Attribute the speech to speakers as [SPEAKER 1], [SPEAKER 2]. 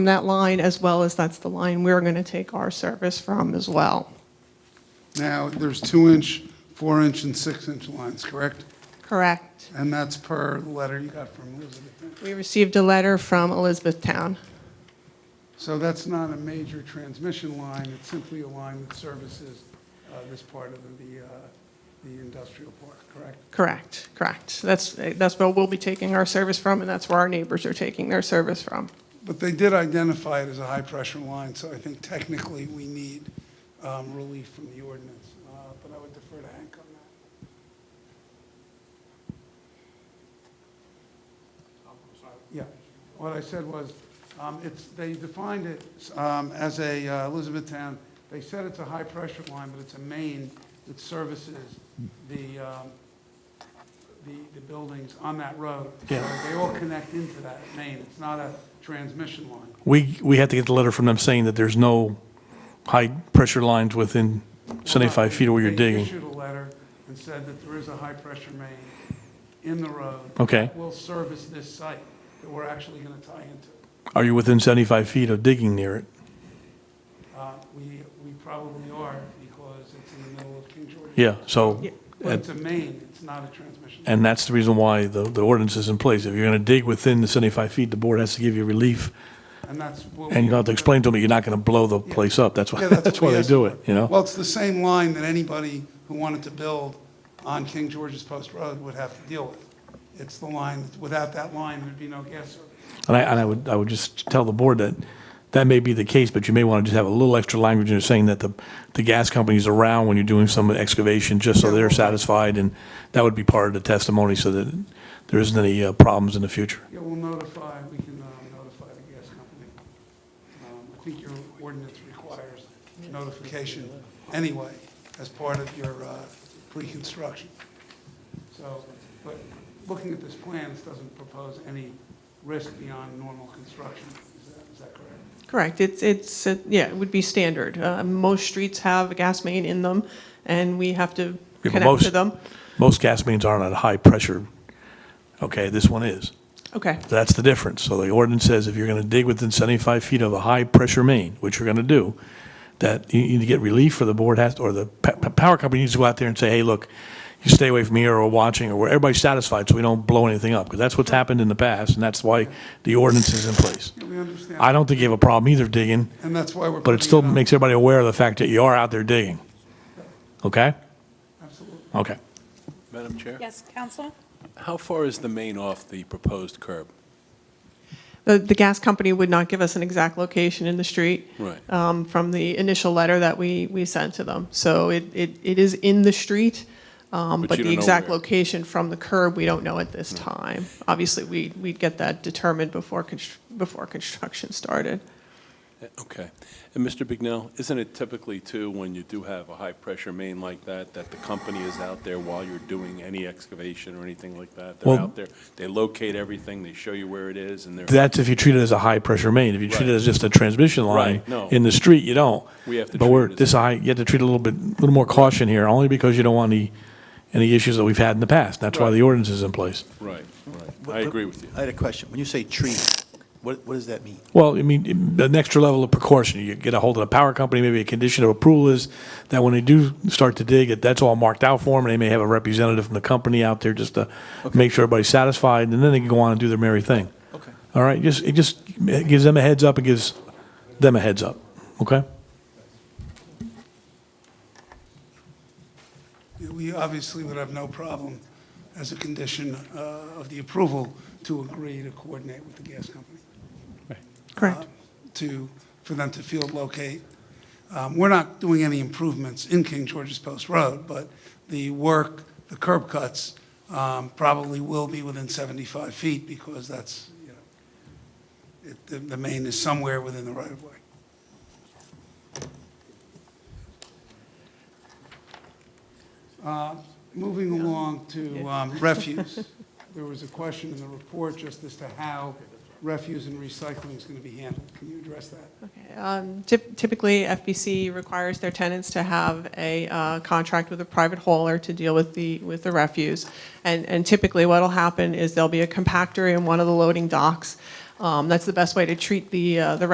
[SPEAKER 1] from that line, as well as that's the line we're going to take our service from as well.
[SPEAKER 2] Now, there's two-inch, four-inch, and six-inch lines, correct?
[SPEAKER 1] Correct.
[SPEAKER 2] And that's per letter you got from Elizabeth.
[SPEAKER 1] We received a letter from Elizabethtown.
[SPEAKER 2] So that's not a major transmission line, it's simply a line that services uh, this part of the, uh, the industrial park, correct?
[SPEAKER 1] Correct, correct. That's, that's where we'll be taking our service from, and that's where our neighbors are taking their service from.
[SPEAKER 2] But they did identify it as a high-pressure line, so I think technically we need um, relief from the ordinance. Uh, But I would defer to Hank on that. Yeah, what I said was, um, it's, they defined it um, as a uh, Elizabethtown, they said it's a high-pressure line, but it's a main that services the, um, the, the buildings on that road. Yeah. They all connect into that main, it's not a transmission line.
[SPEAKER 3] We, we had to get the letter from them saying that there's no high-pressure lines within 75 feet of where you're
[SPEAKER 2] They
[SPEAKER 3] digging.
[SPEAKER 2] issued a letter and said that there is a high-pressure main in the road.
[SPEAKER 3] Okay.
[SPEAKER 2] that Will service this site that we're actually going to tie into.
[SPEAKER 3] Are you within 75 feet of digging near it?
[SPEAKER 2] Uh, We, we probably are because it's in the middle of King George.
[SPEAKER 3] Yeah, so,
[SPEAKER 2] But it's a main, it's not a transmission.
[SPEAKER 3] and that's the reason why the, the ordinance is in place. If you're going to dig within the 75 feet, the board has to give you relief,
[SPEAKER 2] And that's what. we-
[SPEAKER 3] and you have to explain to them that you're not going to blow the place up. That's why,
[SPEAKER 2] Yeah,
[SPEAKER 3] that's
[SPEAKER 2] what
[SPEAKER 3] why
[SPEAKER 2] we
[SPEAKER 3] they
[SPEAKER 2] asked
[SPEAKER 3] do
[SPEAKER 2] for.
[SPEAKER 3] it, you know?
[SPEAKER 2] Well, it's the same line that anybody who wanted to build on King George's Post Road would have to deal with. It's the line, without that line, there'd be no gas service.
[SPEAKER 3] And I, and I would, I would just tell the board that that may be the case, but you may want to just have a little extra language in there saying that the, the gas company's around when you're doing some excavation, just so they're satisfied, and that would be part of the testimony, so that there isn't any uh, problems in the future.
[SPEAKER 2] Yeah, we'll notify, we can uh, notify the gas company. Um, I think your ordinance requires notification anyway as part of your uh, pre-construction. So, but looking at this plan, this doesn't propose any risk beyond normal construction. Is that, is that correct?
[SPEAKER 1] Correct. It's, it's, uh, yeah, it would be standard. Uh, Most streets have a gas main in them, and we have to
[SPEAKER 3] but
[SPEAKER 1] connect
[SPEAKER 3] most-
[SPEAKER 1] to them.
[SPEAKER 3] Most gas mains aren't at high pressure. Okay, this one is.
[SPEAKER 1] Okay,
[SPEAKER 3] That's the difference. So the ordinance says if you're going to dig within 75 feet of a high-pressure main, which you're going to do, that you need to get relief for the board has, or the pa- pa- power company needs to go out there and say, hey, look, you stay away from here or watching, or where everybody's satisfied, so we don't blow anything up, because that's what's happened in the past, and that's why the ordinance is in place.
[SPEAKER 2] Yeah, we understand.
[SPEAKER 3] I don't think you have a problem either digging,
[SPEAKER 2] And that's why we're.
[SPEAKER 3] but it
[SPEAKER 2] putting
[SPEAKER 3] still
[SPEAKER 2] on.
[SPEAKER 3] makes everybody aware of the fact that you are out there digging. Okay?
[SPEAKER 2] Absolutely.
[SPEAKER 3] Okay.
[SPEAKER 4] Madam Chair?
[SPEAKER 5] Yes, Counsel?
[SPEAKER 4] How far is the main off the proposed curb?
[SPEAKER 1] The, the gas company would not give us an exact location in the street.
[SPEAKER 4] Right.
[SPEAKER 1] um, From the initial letter that we, we sent to them. So it, it, it is in the street, um,
[SPEAKER 4] But
[SPEAKER 1] but
[SPEAKER 4] you
[SPEAKER 1] the
[SPEAKER 4] don't know
[SPEAKER 1] exact
[SPEAKER 4] where. Hmm.
[SPEAKER 1] location from the curb, we don't know at this time. Obviously, we, we'd get that determined before, constr- before construction started.
[SPEAKER 4] Eh, Okay. And Mr. Bignell, isn't it typically too, when you do have a high-pressure main like that, that the company is out there while you're doing any excavation or anything like that? They're
[SPEAKER 3] Well-
[SPEAKER 4] out there, they locate everything, they show you where it is, and they're,
[SPEAKER 3] That's if you treat it as a high-pressure main. If you treat it
[SPEAKER 4] Right.
[SPEAKER 3] as just a transmission line
[SPEAKER 4] Right, no.
[SPEAKER 3] in the street, you don't.
[SPEAKER 4] We have to
[SPEAKER 3] But
[SPEAKER 4] treat
[SPEAKER 3] we're,
[SPEAKER 4] it as
[SPEAKER 3] this
[SPEAKER 4] a-
[SPEAKER 3] high, you have to treat it a little bit, a little more caution here, only because you don't want any, any issues that we've had in the past. That's why
[SPEAKER 4] Right.
[SPEAKER 3] the ordinance is in place.
[SPEAKER 4] right, right.
[SPEAKER 6] What-
[SPEAKER 4] I agree with you.
[SPEAKER 6] I had a question. When you say tree, what, what does that mean?
[SPEAKER 3] Well, I mean, an extra level of precaution. You get a hold of the power company, maybe a condition of approval is that when they do start to dig, it that's all marked out for them, and they may have a representative from the company out there just to make sure everybody's satisfied, and then they can go on and do their merry thing.
[SPEAKER 6] Okay.
[SPEAKER 3] All right, just, it just it gives them a heads up, it gives them a heads up, okay?
[SPEAKER 2] We obviously would have no problem as a condition uh, of the approval to agree to coordinate with the gas company.
[SPEAKER 1] Correct.
[SPEAKER 2] To, for them to field locate. Um, We're not doing any improvements in King George's Post Road, but the work, the curb cuts, um, probably will be within 75 feet because that's, you know, it- the- the main is somewhere within the right of way. Uh, Moving along to um, refuse, there was a question in the report just as to how refuse and recycling is going to be handled. Can you address that?
[SPEAKER 1] Okay, um, typ- Typically, FBC requires their tenants to have a uh, contract with a private hauler to deal with the, with the refuse. And and typically, what'll happen is there'll be a compactor in one of the loading docks. Um, That's the best way to treat the, uh, the